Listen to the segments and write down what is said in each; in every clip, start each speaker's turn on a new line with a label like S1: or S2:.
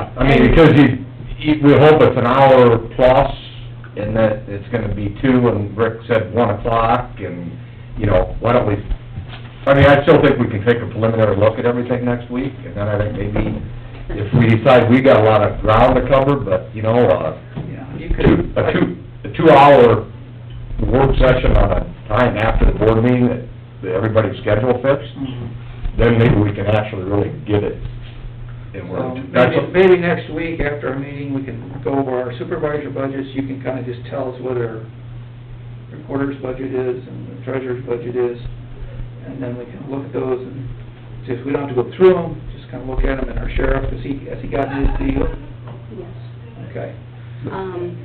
S1: Yeah, I mean,
S2: And-
S1: because you, you- we hope it's an hour plus, and that it's gonna be two, and Rick said one o'clock, and, you know, why don't we, I mean, I still think we can take a preliminary look at everything next week, and then I think maybe if we decide we got a lot of ground to cover, but, you know, uh,
S2: Yeah, you
S1: two,
S2: could,
S1: a two, a two-hour work session on a time after the board meeting that that everybody's schedule fits,
S2: Mhm.
S1: then maybe we can actually really get it in
S2: So,
S1: work. That's
S2: Um, maybe,
S1: what-
S2: maybe next week after our meeting, we can go over our supervisor budgets, you can kinda just tell us what our recorder's budget is and the treasurer's budget is, and then we can look at those and, see if we don't have to go through them, just kinda look at them, and our sheriff, has he, has he gotten his deal?
S3: Yes.
S2: Okay.
S3: Um,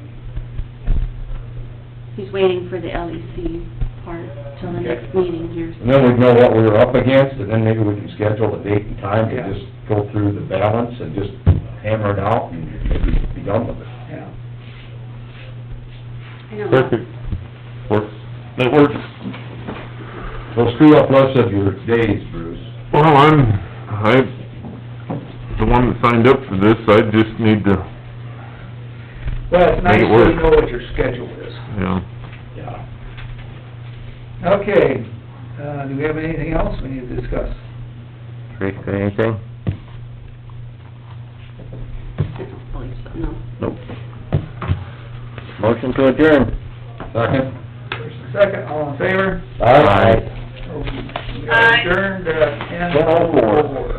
S3: he's waiting for the LEC part till the next meeting here.
S1: And then we'd know what we were up against, and then maybe we can schedule a date and time to
S2: Yeah.
S1: just go through the balance and just hammer it out and maybe be done with it.
S2: Yeah.
S3: I know.
S4: Perfect. Works. That works.
S1: Well, screw up less of your days, Bruce.
S4: Well, I'm, I, the one that signed up for this, I just need to,
S2: Well, it's nice
S4: Make it
S2: to
S4: work.
S2: know what your schedule is.
S4: you know,
S1: Yeah.
S2: Okay, uh, do we have anything else we need to discuss?
S5: Rick, got anything?
S3: I don't believe so, no.
S5: Nope. Motion to adjourn.
S1: Second?
S2: First and second, all in favor?
S1: All right.
S2: Adjourned at ten oh four.